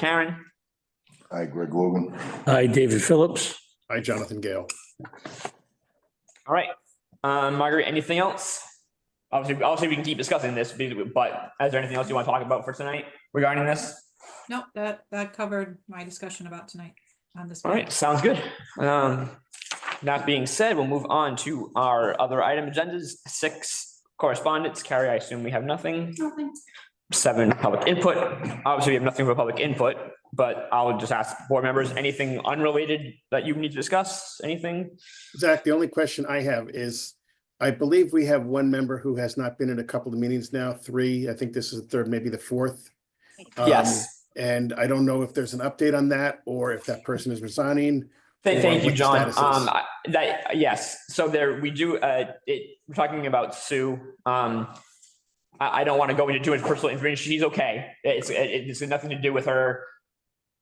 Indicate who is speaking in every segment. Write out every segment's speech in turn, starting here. Speaker 1: Karen,
Speaker 2: Hi, Greg Logan.
Speaker 3: Aye, David Phillips.
Speaker 4: Hi, Jonathan Gale.
Speaker 1: all right. Um, Marguerite, anything else? Obviously, obviously, we can keep discussing this, but- but is there anything else you want to talk about for tonight regarding this?
Speaker 5: Nope, that, that covered my discussion about tonight on this.
Speaker 1: All right,
Speaker 5: page.
Speaker 1: sounds good. Um, that being said, we'll move on to our other item agendas, six correspondence. Carrie, I assume we have nothing. Seven, public input. Obviously, we have nothing for public input, but I'll just ask board members, anything unrelated that you need to discuss, anything?
Speaker 4: Zach, the only question I have is, I believe we have one member who has not been in a couple of meetings now, three. I think this is the third, maybe the fourth. Um,
Speaker 1: Yes.
Speaker 4: And I don't know if there's an update on that or if that person is resigning.
Speaker 1: Thank,
Speaker 4: or
Speaker 1: thank you,
Speaker 4: what the
Speaker 1: John.
Speaker 4: status is.
Speaker 1: Um, I- that, yes, so there, we do, uh, it, we're talking about Sue. Um, I, I don't want to go into too much personal information. She's okay. It's, it, it's nothing to do with her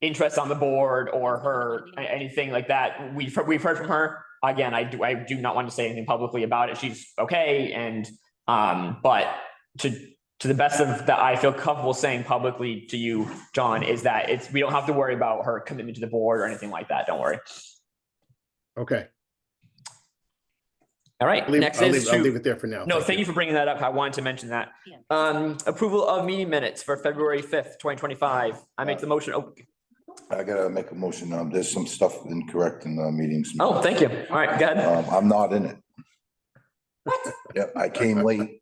Speaker 1: interests on the board or her, a- anything like that. We've, we've heard from her. Again, I do, I do not want to say anything publicly about it. She's okay and, um, but to, to the best of that I feel comfortable saying publicly to you, John, is that it's, we don't have to worry about her commitment to the board or anything like that. Don't worry.
Speaker 4: Okay,
Speaker 1: All right,
Speaker 4: I'll leave,
Speaker 1: next
Speaker 4: I'll
Speaker 1: is
Speaker 4: leave- I'll
Speaker 1: to-
Speaker 4: leave it there for now.
Speaker 1: no, thank you for bringing that up. I wanted to mention that.
Speaker 6: Yeah.
Speaker 1: Um, approval of meeting minutes for February fifth, twenty twenty-five. I make the motion. Oh,
Speaker 2: I gotta make a motion. Um, there's some stuff incorrect in the meetings.
Speaker 1: oh, thank you. All right, go ahead.
Speaker 2: Um, I'm not in it. What? Yep, I came late,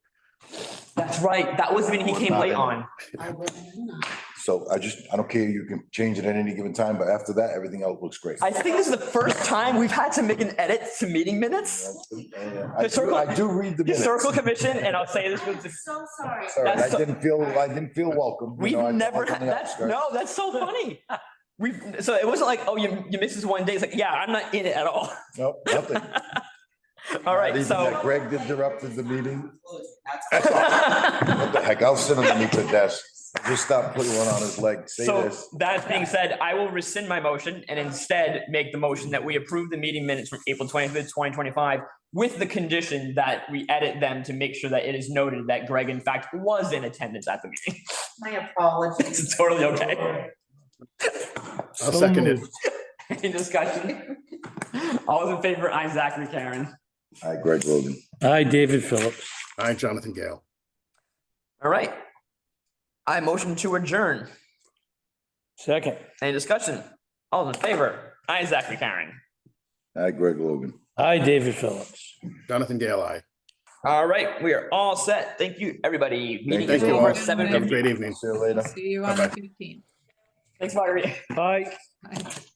Speaker 1: That's right. That was when he came late on.
Speaker 6: I wasn't in on it.
Speaker 2: so I just, I don't care. You can change it at any given time, but after that, everything else looks great.
Speaker 1: I think this is the first time we've had to make an edit to meeting minutes.
Speaker 2: I do,
Speaker 1: Historical-
Speaker 2: I do read the minutes.
Speaker 1: Historical Commission, and I'll say this was,
Speaker 6: I'm so sorry.
Speaker 2: Sorry, I
Speaker 1: that's so-
Speaker 2: didn't feel, I didn't feel welcome. you
Speaker 1: we've
Speaker 2: know, I felt
Speaker 1: never,
Speaker 2: like
Speaker 1: had
Speaker 2: on the
Speaker 1: that's,
Speaker 2: outskirts.
Speaker 1: no, that's so funny. We've, so it wasn't like, oh, you, you missed this one day. It's like, yeah, I'm not in it at all.
Speaker 2: Nope, nothing.
Speaker 1: All
Speaker 2: Not
Speaker 1: right,
Speaker 2: even that
Speaker 1: so.
Speaker 2: Greg interrupted the meeting. What the heck? I'll sit underneath the desk. Just stop putting one on his leg. Say
Speaker 1: So
Speaker 2: this.
Speaker 1: that being said, I will rescind my motion and instead make the motion that we approve the meeting minutes from April twenty-fifth, twenty twenty-five with the condition that we edit them to make sure that it is noted that Greg in fact was in attendance at the meeting.
Speaker 6: My apologies.
Speaker 1: It's totally okay.
Speaker 4: I'll second it.
Speaker 1: Any discussion? All those in favor, I, Zachary, Karen.
Speaker 2: Hi, Greg Logan.
Speaker 3: Aye, David Phillips.
Speaker 4: Hi, Jonathan Gale.
Speaker 1: All right. I motion to adjourn.
Speaker 3: Second.
Speaker 1: Any discussion? All those in favor, I, Zachary, Karen.
Speaker 2: Hi, Greg Logan.
Speaker 3: Aye, David Phillips.
Speaker 4: Jonathan Gale, aye.
Speaker 1: All right, we are all set. Thank you, everybody. Meeting
Speaker 2: Thank
Speaker 1: is
Speaker 2: you
Speaker 1: over
Speaker 2: all.
Speaker 1: seven
Speaker 4: Have a
Speaker 1: fifty.
Speaker 4: great evening.
Speaker 2: See you later.
Speaker 5: See you on the fifteenth.
Speaker 1: Thanks, Marguerite.
Speaker 3: Aye.
Speaker 5: Bye.